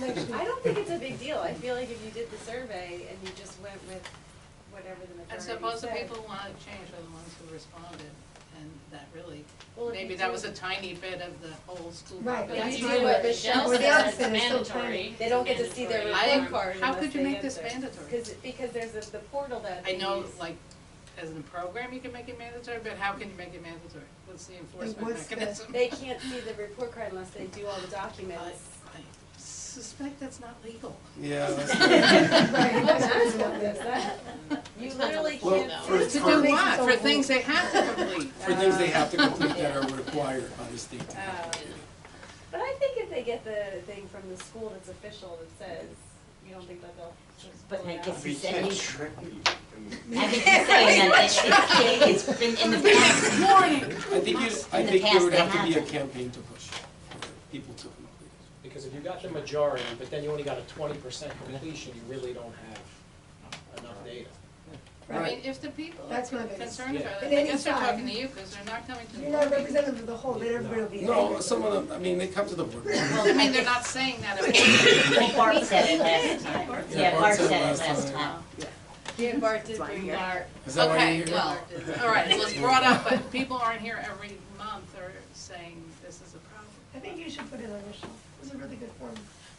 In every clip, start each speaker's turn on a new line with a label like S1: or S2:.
S1: I don't think it's a big deal, I feel like if you did the survey and you just went with whatever the majority
S2: And
S1: said.
S2: suppose the people who wanted change are the ones who responded, and that really,
S1: Well, if
S2: maybe
S1: you
S2: that
S1: do-
S2: was a tiny bit of the whole school
S3: Right, but
S2: population.
S3: if
S4: That's
S3: you
S4: why
S3: do
S4: what
S3: it-
S4: Michelle
S3: or the other
S4: said, it's
S3: thing is still
S4: mandatory.
S3: trying.
S1: They don't get to see their
S2: I
S1: report
S2: didn't-
S1: card
S2: how
S1: unless
S2: could you
S1: they
S2: make this
S1: answer.
S2: mandatory?
S1: Cause, because there's a, the portal that
S2: I
S1: they
S2: know,
S1: use.
S2: like, as a program, you can make it mandatory, but how can you make it mandatory? What's the enforcement
S3: what's the-
S2: mechanism?
S1: They can't see the report card unless they do all the documents.
S2: I- I suspect that's not legal.
S5: Yeah. that's-
S3: Right,
S1: Well,
S3: that's what
S1: that's
S3: I'm
S1: what
S3: doing.
S1: this, that, you literally
S5: Well,
S1: can't.
S5: for-
S2: To do
S5: for-
S2: what? For things they have to complete.
S5: For things they have to complete that are required by the state to have
S1: Uh,
S5: completed.
S1: But I think if they get the thing from the school that's official that says, you don't think that they'll. just
S4: But
S1: pull
S4: I
S1: it out?
S4: guess
S6: We
S4: he's saying,
S6: can't
S4: he's,
S6: trick you.
S4: I think he's saying that it- it, it's been in the past.
S5: I think you, I
S4: In the
S5: think
S4: past
S5: there would
S4: they
S5: have to be a
S4: haven't.
S5: campaign to push for people to complete it.
S7: Because if you got the majority, but then you only got a twenty percent completion, you really don't have enough data.
S2: I
S3: Right.
S2: mean, if the people are
S3: That's my biggest-
S2: concerned
S7: Yeah.
S2: about
S3: At
S2: it, I
S3: any
S2: guess they're
S3: time.
S2: talking to you, because they're not coming to the
S3: You're not
S2: board meeting.
S3: representative of the whole, then everybody will be angry.
S5: No, some of them, I mean, they come to the board.
S2: I mean, they're not saying that at all.
S4: Well, Barb said it last time. Yeah, Barb said it last time.
S1: Yeah, Bart did bring Bart.
S5: Is that why you're
S2: Okay,
S5: here?
S2: well, all right, it was brought up, but people aren't here every month are saying this is a problem.
S3: I think you should put it on your shelf. It was a really good form.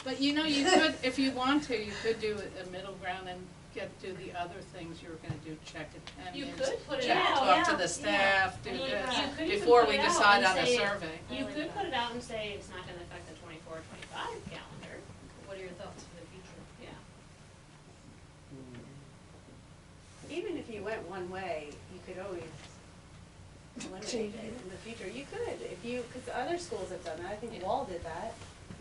S2: But you know, you could, if you want to, you could do a- a middle ground and get, do the other things you were gonna do, check
S4: You
S2: attendance.
S4: could put it
S2: check-
S4: out,
S2: Talk
S4: yeah,
S2: to the staff, do
S4: You-
S2: this,
S4: you could even
S2: before
S4: put
S2: we
S4: it out
S2: decide
S4: and
S2: on a
S4: say-
S2: survey.
S4: You could put it out and say it's not gonna affect the 24, 25 calendar. What are your thoughts for the future? Yeah.
S1: Even if you went one way, you could always eliminate
S3: Change
S1: it
S3: it.
S1: in the future. You could, if you, because other schools have done that. I think
S2: Yeah.
S1: Wall did that.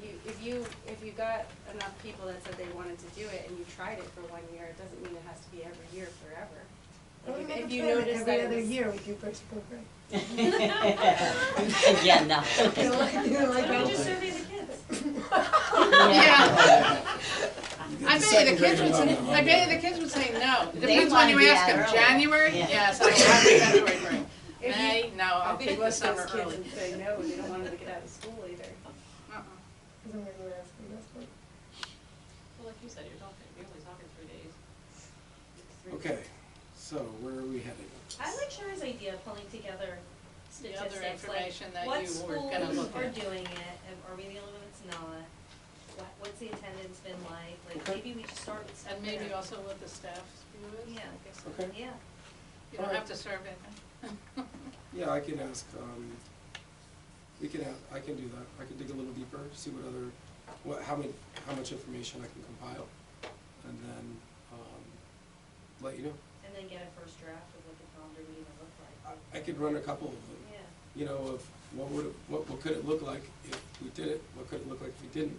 S1: You, if you, if you got enough people that said they wanted to do it and you tried it for one year, it doesn't mean it has to be every year forever.
S3: I don't
S1: If-
S3: remember
S1: if you
S3: doing it
S1: notice that
S3: Every other
S1: it's-
S3: year we do first program.
S4: Yeah, no.
S3: You know, like- you know, like-
S1: Why don't we just survey the kids?
S2: Yeah, I
S5: The
S2: bet you
S5: second
S2: the kids
S5: grade
S2: would say,
S5: level.
S2: I bet you the kids would say no. It
S4: They
S2: Depends when
S4: wanna
S2: you
S4: be
S2: ask
S4: out
S2: them,
S4: early.
S2: January,
S4: Yeah.
S2: yes, I'll have the February break.
S1: If you-
S2: May, no,
S1: I
S2: I'll
S1: think
S2: take the
S1: most of
S2: summer
S1: those kids
S2: early.
S1: would say no, they don't want them to get out of school either.
S2: Uh-uh.
S3: Because I'm gonna ask them this one.
S4: Well, like you said, you're talking, you're only talking three days.
S5: Okay, so where are we headed?
S8: I like Sherry's idea of pulling together
S2: The other
S8: statistics, like
S2: information that
S8: what
S2: you were gonna
S8: schools
S2: look
S8: are
S2: at.
S8: doing it, and are we the only one that's not? What, what's the attendance been like, like
S5: Okay.
S8: maybe we should start with
S2: And
S8: something.
S2: maybe also what the staff's view is, I
S8: Yeah.
S2: guess.
S5: Okay,
S8: Yeah,
S2: You don't
S5: Alright.
S2: have to serve it.
S5: yeah, I can ask, um, we can, a- I can do that. I can dig a little deeper, see what other, what, how many, how much information I can compile, and then, um, let you know.
S8: and then get a first draft of what the calendar would even look like,
S5: I- I could run a couple of them.
S8: yeah.
S5: you know, of what would, it- what, what could it look like if we did it, what could it look like if we didn't?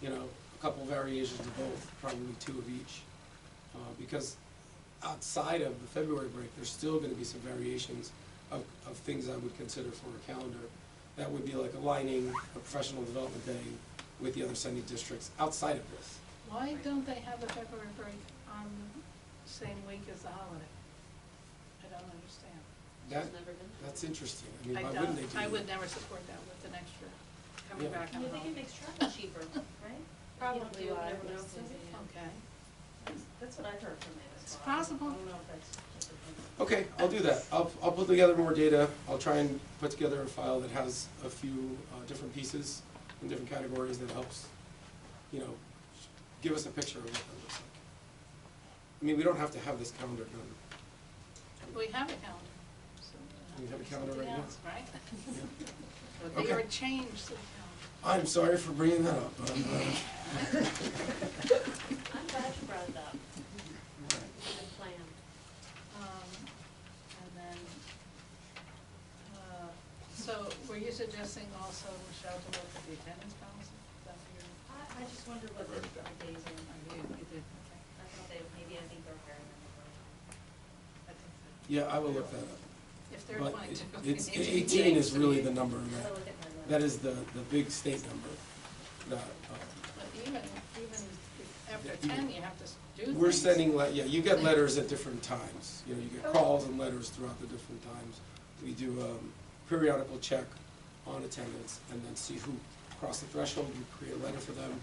S5: You know, a couple variations of both, probably two of each. Uh, because outside of the February break, there's still gonna be some variations of, of things I would consider for a calendar. That would be like aligning a professional development day with the other sending districts outside of this.
S2: Why don't they have the February break on the same week as the holiday? I don't understand.
S5: That,
S4: It's never been.
S5: that's interesting. I mean,
S2: I
S5: why
S2: don't-
S5: wouldn't they do that?
S2: I would never support that with an extra coming
S5: Yeah.
S2: back on
S8: You
S2: the
S8: think it
S2: holiday.
S8: makes travel cheaper, right?
S1: Probably
S8: You don't do it
S1: why.
S8: whenever else is, yeah.
S2: Okay.
S8: That's- That's what I heard from it as well.
S2: It's possible.
S8: I don't know if that's just a thing.
S5: Okay, I'll do that. I'll, I'll put together more data. I'll try and put together a file that has a few uh, different pieces and different categories that helps, you know, give us a picture of what that looks like. I mean, we don't have to have this calendar done.
S2: We have a calendar. so
S5: We have a
S2: do
S5: calendar
S2: something
S5: right now.
S2: else, Right?
S5: Yeah.
S2: But they are
S5: Okay.
S2: changed to the
S5: I'm sorry for bringing that up. but, uh,
S8: I'm glad you brought it up, the plan.
S2: calendar. Um, And then, uh, so were you suggesting also, Michelle, to look at the attendance policy? Is that what
S8: I, I just wonder what the different days
S2: you're,
S8: are.
S2: or you you did, okay.
S8: I thought they, maybe I think they're higher than they were.
S2: I think that-
S5: Yeah, I will look that up.
S2: If they're
S5: But
S2: twenty-two.
S5: it-
S2: they
S5: it's,
S2: need to be
S5: eighteen
S2: changed
S5: is
S2: to
S5: really
S2: be-
S5: the number
S8: I'm
S5: that,
S8: gonna look at my list.
S5: that is the, the big state number that, uh,
S2: But even, even after
S5: Yeah,
S2: ten, you have to s- do things.
S5: We're sending, le- yeah, you get letters at different times, you know, you get
S2: Oh.
S5: calls and letters throughout the different times. We do um, a periodical check on attendance and then see who crossed the threshold, we create a letter for them,